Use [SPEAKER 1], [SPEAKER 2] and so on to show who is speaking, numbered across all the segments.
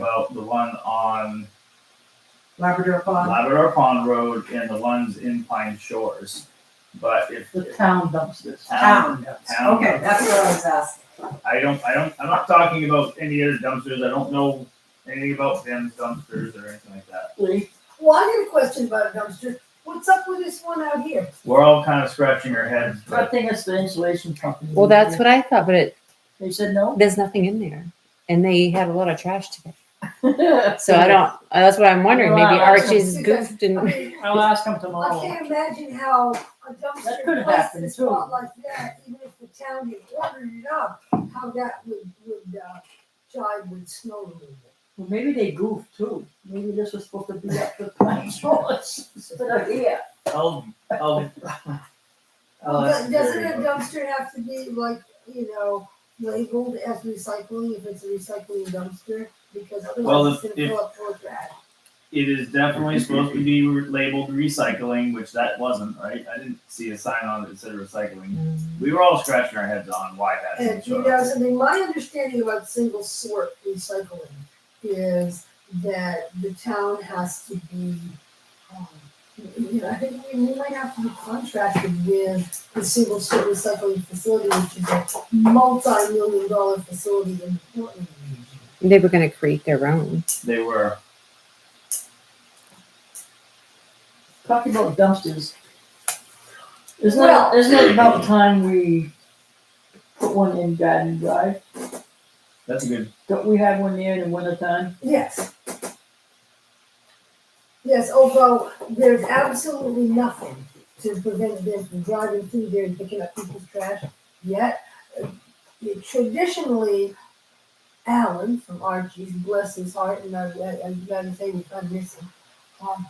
[SPEAKER 1] about the one on
[SPEAKER 2] Labrador Pond,
[SPEAKER 1] Labrador Pond Road and the ones in Pine Shores. But if,
[SPEAKER 3] The town dumpsters.
[SPEAKER 1] Town.
[SPEAKER 2] town.
[SPEAKER 1] Town.
[SPEAKER 2] Okay, that's what I was asking.
[SPEAKER 1] I don't, I don't, I'm not talking about any other dumpsters, I don't know anything about Ben's dumpsters or anything like that.
[SPEAKER 4] Well, I got a question about a dumpster. What's up with this one out here?
[SPEAKER 1] We're all kind of scratching our heads,
[SPEAKER 3] I
[SPEAKER 1] but
[SPEAKER 3] think it's the insulation company.
[SPEAKER 5] Well, that's what I thought, but it,
[SPEAKER 3] They said no.
[SPEAKER 5] there's nothing in there, and they had a lot of trash today. So I don't. That's what I'm wondering. Maybe
[SPEAKER 3] Well, that's-
[SPEAKER 5] Archie's goofed
[SPEAKER 4] I
[SPEAKER 5] and
[SPEAKER 4] mean,
[SPEAKER 3] I'll ask them
[SPEAKER 4] I
[SPEAKER 3] tomorrow.
[SPEAKER 4] can't imagine how a
[SPEAKER 3] That could
[SPEAKER 4] dumpster
[SPEAKER 3] have
[SPEAKER 4] placed in
[SPEAKER 3] happened,
[SPEAKER 4] a
[SPEAKER 3] too.
[SPEAKER 4] spot like that, even if the town had ordered it up, how that would, would, uh, jive with snow removal.
[SPEAKER 3] Well, maybe they goofed too. Maybe this was supposed to be up to Pine Shores. Instead of here.
[SPEAKER 1] I'll, I'll. I'll ask
[SPEAKER 4] But Doesn't
[SPEAKER 1] Gary
[SPEAKER 4] a
[SPEAKER 1] about-
[SPEAKER 4] dumpster have to be like, you know, labeled as recycling if it's a recycling dumpster? Because
[SPEAKER 1] Well, if-
[SPEAKER 4] otherwise it's gonna fill up full of trash.
[SPEAKER 1] It is definitely supposed to be labeled recycling, which that wasn't, right? I didn't see a sign on it that said recycling. We were all scratching our heads on why
[SPEAKER 4] And
[SPEAKER 1] that's.
[SPEAKER 4] you know something, my understanding about single sort recycling is that the town has to be, um, you know, I think we we might have to be contracted with the single sort recycling facility, which is a multi-million dollar facility in Portland.
[SPEAKER 5] they were going to create their own.
[SPEAKER 1] They were,
[SPEAKER 3] Talking about dumpsters. Isn't
[SPEAKER 4] Well-
[SPEAKER 3] it, isn't it about time we put one in Garden Drive?
[SPEAKER 1] that's a good,
[SPEAKER 3] Don't we have one there in the winter time?
[SPEAKER 4] Yes. Yes, although there's absolutely nothing to prevent them from driving through there and picking up people's trash yet. uh, Traditionally, Alan from Archie's, bless his heart, and I, I, I'm glad to say we kind of miss him. Um,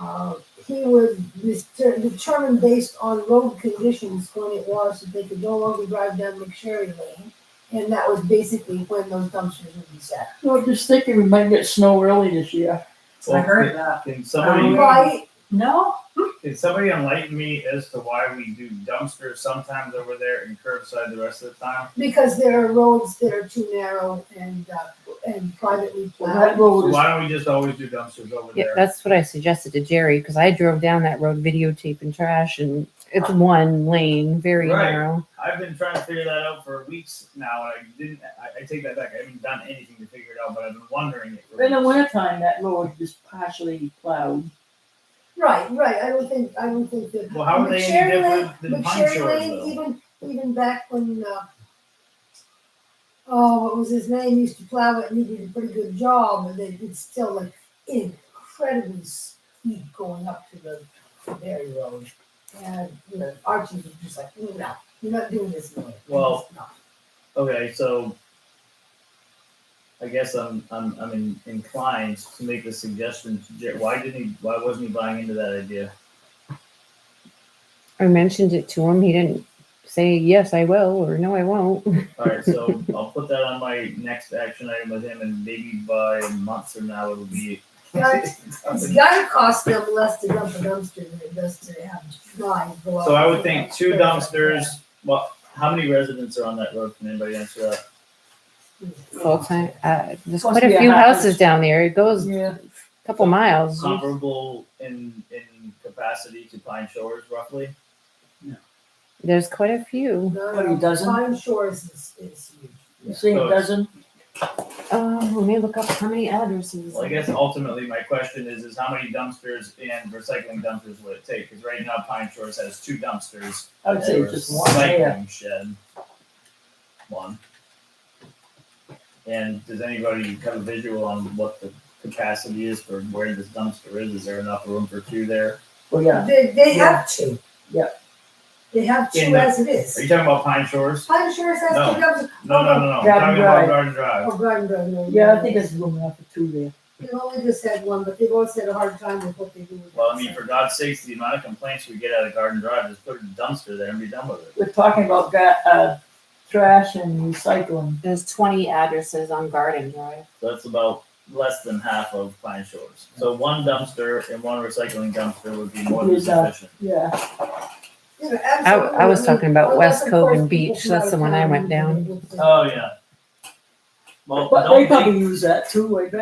[SPEAKER 4] uh, he would deter- determine based on road conditions when it was that they could no longer drive down McSherry Lane. And that was basically when those dumpsters would be set.
[SPEAKER 3] Well, just thinking we might get snow early this year.
[SPEAKER 2] I
[SPEAKER 1] Okay.
[SPEAKER 2] heard that.
[SPEAKER 1] can somebody?
[SPEAKER 4] Right,
[SPEAKER 3] No?
[SPEAKER 1] Can somebody enlighten me as to why we do dumpsters sometimes over there and curbside the rest of the time?
[SPEAKER 4] Because there are roads that are too narrow and, uh, and privately
[SPEAKER 3] Well, that
[SPEAKER 4] plowed.
[SPEAKER 1] So
[SPEAKER 3] road is,
[SPEAKER 1] why don't we just always do dumpsters over
[SPEAKER 5] Oh, Yeah,
[SPEAKER 1] there?
[SPEAKER 5] that's what I suggested to Jerry because I drove down that road videotaping trash, and it's one lane, very
[SPEAKER 1] Right.
[SPEAKER 5] narrow.
[SPEAKER 1] I've been trying to figure that out for weeks now, and I didn't. I, I take that back. I haven't done anything to figure it out, but I've been wondering it. For
[SPEAKER 3] in the
[SPEAKER 1] weeks.
[SPEAKER 3] winter time, that road is partially plowed.
[SPEAKER 4] Right, right, I don't think, I don't think that.
[SPEAKER 1] Well, how are they any
[SPEAKER 4] McSherry Lane-
[SPEAKER 1] different than Pine
[SPEAKER 4] McSherry
[SPEAKER 1] Shores,
[SPEAKER 4] Lane,
[SPEAKER 1] though?
[SPEAKER 4] Even, even back when, uh, oh, what was his name, used to plow it, and he did a pretty good job, but then it's still like incredibly steep going up to the Berry Road. And, you know, Archie was just like, no, you're not doing this, no.
[SPEAKER 1] Well,
[SPEAKER 4] No.
[SPEAKER 1] Okay, so I guess I'm I'm I'm in, inclined to make the suggestion. To Jer- why didn't he? Why wasn't he buying into that idea?
[SPEAKER 5] I mentioned it to him. He didn't say yes, I will, or no, I won't.
[SPEAKER 1] All right, so I'll put that on my next action item with him, and maybe by months from now it'll be.
[SPEAKER 4] Right. It's gotta cost them less to dump a dumpster than it does to have drive go out.
[SPEAKER 1] So I would think two dumpsters, well, how many residents are on that road? Can anybody answer that?
[SPEAKER 5] Full time. Uh,
[SPEAKER 3] Must
[SPEAKER 5] there's quite
[SPEAKER 3] be
[SPEAKER 5] a
[SPEAKER 3] a
[SPEAKER 5] few
[SPEAKER 3] half
[SPEAKER 5] houses
[SPEAKER 3] inch.
[SPEAKER 5] down there. It goes a
[SPEAKER 3] Yeah.
[SPEAKER 5] couple miles.
[SPEAKER 1] Uh-huh. Comparable in, in capacity to Pine Shores roughly?
[SPEAKER 5] There's quite a few.
[SPEAKER 4] No,
[SPEAKER 3] But he
[SPEAKER 4] no,
[SPEAKER 3] doesn't?
[SPEAKER 4] Pine Shores is, is huge.
[SPEAKER 3] You see,
[SPEAKER 1] So
[SPEAKER 3] it
[SPEAKER 1] it's-
[SPEAKER 3] doesn't,
[SPEAKER 5] Uh, let me look up how many addresses.
[SPEAKER 1] Well, I guess ultimately my question is, is how many dumpsters and recycling dumpsters would it take? Because right now Pine Shores has two dumpsters.
[SPEAKER 3] I would say
[SPEAKER 1] and a
[SPEAKER 3] just one there.
[SPEAKER 1] Recycling shed. One. And does anybody have a visual on what the capacity is for where this dumpster is? Is there enough room for two there?
[SPEAKER 3] Well, yeah,
[SPEAKER 4] They, they
[SPEAKER 3] Yeah.
[SPEAKER 4] have two.
[SPEAKER 3] Yeah.
[SPEAKER 4] They have
[SPEAKER 1] In
[SPEAKER 4] two
[SPEAKER 1] the-
[SPEAKER 4] as it
[SPEAKER 1] Are
[SPEAKER 4] is.
[SPEAKER 1] you talking about Pine Shores?
[SPEAKER 4] Pine Shores has
[SPEAKER 1] No.
[SPEAKER 4] two dumpsters.
[SPEAKER 1] No, no, no, no. I'm
[SPEAKER 3] Garden
[SPEAKER 1] talking about
[SPEAKER 3] Drive.
[SPEAKER 1] Garden Drive.
[SPEAKER 4] Oh, Garden Grove, no,
[SPEAKER 3] yeah, I
[SPEAKER 4] no.
[SPEAKER 3] think it's room enough for two there.
[SPEAKER 4] They've only just had one, but they've always had a hard time with what they do. with
[SPEAKER 1] Well, I
[SPEAKER 4] that.
[SPEAKER 1] mean, for God's sakes, the amount of complaints we get out of Garden Drive, just put a dumpster there and be done with it.
[SPEAKER 3] We're talking about ga- uh, trash and recycling.
[SPEAKER 5] There's 20 addresses on Garden Drive.
[SPEAKER 1] So that's about less than half of Pine Shores. So one dumpster and one recycling dumpster would be more than
[SPEAKER 3] Is that-
[SPEAKER 1] sufficient.
[SPEAKER 3] Yeah,
[SPEAKER 4] You know,
[SPEAKER 5] I, I was
[SPEAKER 4] absolutely.
[SPEAKER 5] talking about
[SPEAKER 4] Unless,
[SPEAKER 5] West
[SPEAKER 4] of
[SPEAKER 5] Cove
[SPEAKER 4] course,
[SPEAKER 5] and
[SPEAKER 4] people
[SPEAKER 5] Beach.
[SPEAKER 4] from out
[SPEAKER 5] That's
[SPEAKER 4] of
[SPEAKER 5] the one I
[SPEAKER 4] town
[SPEAKER 5] went
[SPEAKER 4] do
[SPEAKER 5] down.
[SPEAKER 4] it with them.
[SPEAKER 1] Oh, yeah. Oh, Well,
[SPEAKER 3] but they
[SPEAKER 1] don't think,
[SPEAKER 3] probably use that too, I bet.